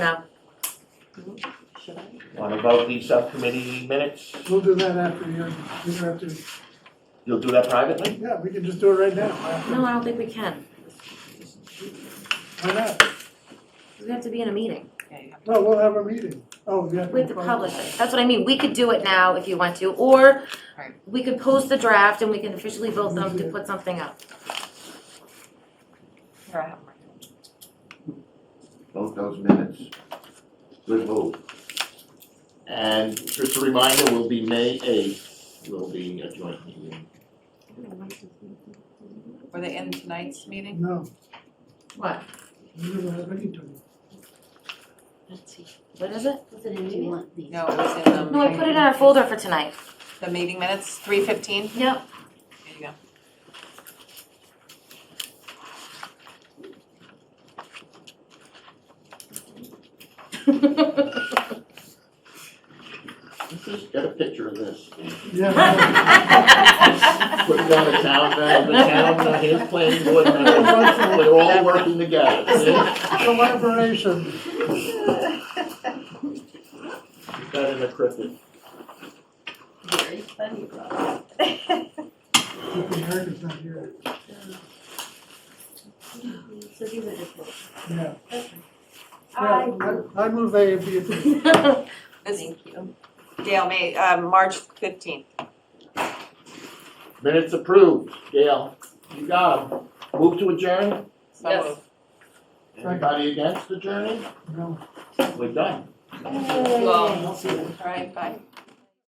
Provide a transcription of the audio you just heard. No. Should I? Want to vote these subcommittee minutes? We'll do that after you, you don't have to, You'll do that privately? yeah, we can just do it right now. after- No, I don't think we can. Why not? We have to be in a meeting. Okay. No, we'll have a meeting. Oh, yeah. We have to publish it. That's what I mean. We could do it now if you want to, or Right. we could post the draft and we can officially vote them to put something up. Here, I have mine. Vote those minutes. Good move. And just a reminder, will be May eighth, will be a joint meeting. Were they in tonight's meeting? No, What? we don't have any to. Let's see, What is it? was it in, do you want these? No, it was in the. No, I put it in our folder for tonight. The meeting minutes, three fifteen? Yep. There you go. Just get a picture of this. Yeah. Put it on the town, uh, the town, uh, his planning board, members. we're all working together. It's Collaboration. Better than a cricket. Very funny, Rob. Flipping heart is not here. So these are just. little- Yeah. I, Yeah, I I move A and B approved. This is thank you. Dale, May, uh, March fifteenth. Minutes approved. Gail, you got them. Move to adjourn? So Yes. moved. Anybody against adjourning? No. We're done. Well, all right, bye.